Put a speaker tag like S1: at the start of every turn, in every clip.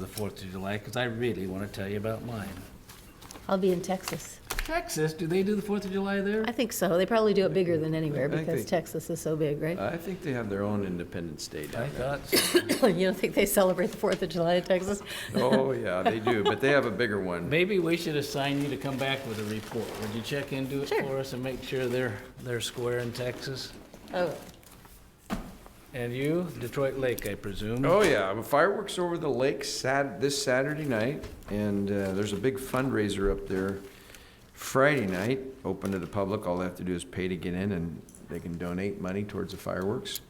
S1: Fourth of July, because I really want to tell you about mine.
S2: I'll be in Texas.
S1: Texas, do they do the Fourth of July there?
S2: I think so. They probably do it bigger than anywhere
S3: I think Uh.
S2: because
S3: they-
S2: Texas is so big, right?
S3: I think they have their own Independence Day
S1: I
S3: down there.
S1: thought, so.
S2: You don't think they celebrate the Fourth of July in Texas?
S3: Oh, yeah, they do, but they have a bigger one.
S1: maybe we should assign you to come back with a report. Would you check into it
S2: Sure.
S1: for us and make sure they're, they're square in Texas?
S2: Oh,
S1: And you, Detroit Lake, I presume?
S3: Oh, yeah, fireworks over the lake Sat, this Saturday night, and uh, there's a big fundraiser up there Friday night, open to the public. All they have to do is pay to get in, and they can donate money towards the fireworks.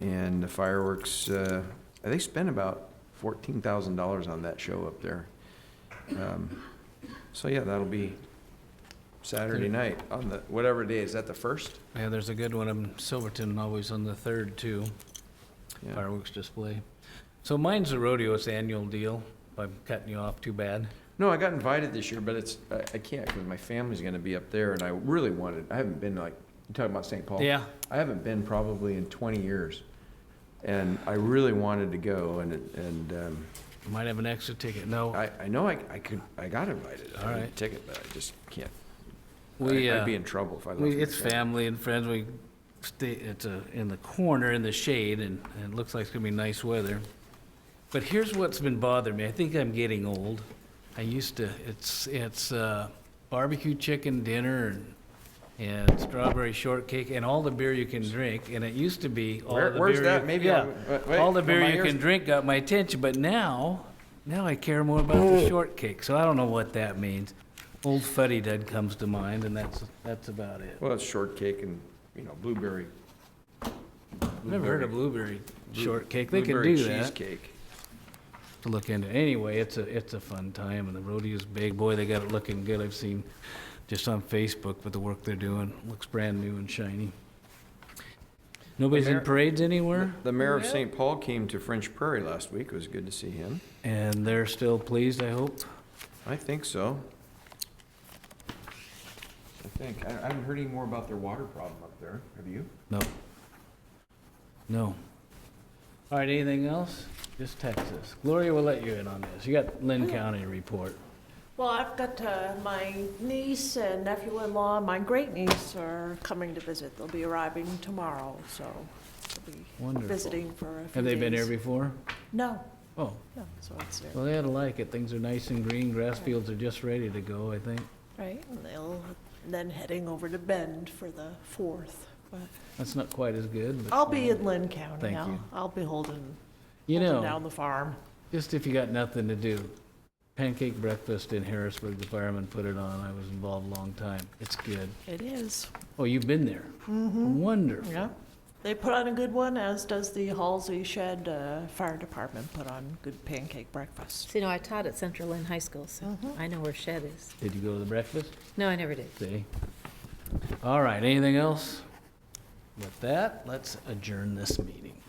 S3: And the fireworks, uh, they spent about fourteen thousand dollars on that show up there. Um, So, yeah, that'll be Saturday night on the, whatever day, is that the first?
S1: Yeah, there's a good one in Silverton, always on the third, too.
S3: Yeah.
S1: fireworks display. So mine's the rodeo, it's the annual deal, if I'm cutting you off too bad.
S3: No, I got invited this year, but it's, I, I can't because my family's gonna be up there and I really wanted, I haven't been like, you talking about St. Paul?
S1: Yeah,
S3: I haven't been probably in twenty years. And I really wanted to go and, it- and, um,
S1: might have an extra ticket, no.
S3: I, I know I, I could, I got invited.
S1: All
S3: I had a
S1: right.
S3: ticket, but I just can't.
S1: We,
S3: I-
S1: uh,
S3: I'd be in trouble if I left.
S1: we,
S3: my
S1: it's family and friends, we stay, it's uh in the corner in the shade, and, and it looks like it's gonna be nice weather. But here's what's been bothering me, I think I'm getting old. I used to, it's, it's, uh, barbecue chicken dinner and, and strawberry shortcake and all the beer you can drink, and it used to be all
S3: Where-
S1: the
S3: where's
S1: beer
S3: that?
S1: you-
S3: Maybe
S1: yeah.
S3: I'm- wait, wait,
S1: all the beer
S3: my
S1: you
S3: ears-
S1: can drink got my attention, but now, now I care more about the shortcake. So I don't know what that means. Old fuddy dud comes to mind, and that's that's about it.
S3: Well, it's shortcake and, you know, blueberry.
S1: Never heard of blueberry shortcake. They can
S3: blueberry
S1: do that
S3: Cheesecake.
S1: to look into. Anyway, it's a it's a fun time, and the rodeo's big. Boy, they got it looking good. I've seen just on Facebook, but the work they're doing looks brand new and shiny. Nobody's in
S3: mayor-
S1: parades anywhere,
S3: The mayor of St. Paul came to French Prairie last week. It was good to see him.
S1: and they're still pleased. I hope.
S3: I think so. I think, I I haven't heard any more about their water problem up there, have you?
S1: No. No. All right, anything else? Just Texas. Gloria will let you in on this. You got
S4: Oh.
S1: Lynn County report.
S4: Well, I've got uh, my niece and nephew-in-law, and my great-niece are coming to visit. They'll be arriving tomorrow, so they'll be
S1: Wonderful.
S4: visiting for a few
S1: Have they been here
S4: days.
S1: before?
S4: No,
S1: Oh,
S4: no, so it's there,
S1: well, they ought to like it. Things are nice and green. Grass fields are just ready to go, I think.
S4: right? And they'll, and then heading over to Bend for the fourth. But
S1: That's not quite as good, but.
S4: I'll be in Lynn County.
S1: Thank
S4: I'll-
S1: you.
S4: I'll be holding,
S1: You
S4: holding
S1: know,
S4: down the farm.
S1: just if you got nothing to do, pancake breakfast in Harrisburg, the firemen put it on. I was involved a long time. It's good.
S4: It is,
S1: Oh, you've been there? Mm-hmm. Wonderful.
S4: yeah. They put on a good one, as does the Halsey Shed uh, Fire Department put on good pancake breakfast.
S2: so you know, I taught at Central Lynn High School, so
S3: Uh-huh.
S2: I know where Shed is.
S1: Did you go to the breakfast?
S2: No, I never did.
S1: See? All right, anything else? With that, let's adjourn this meeting.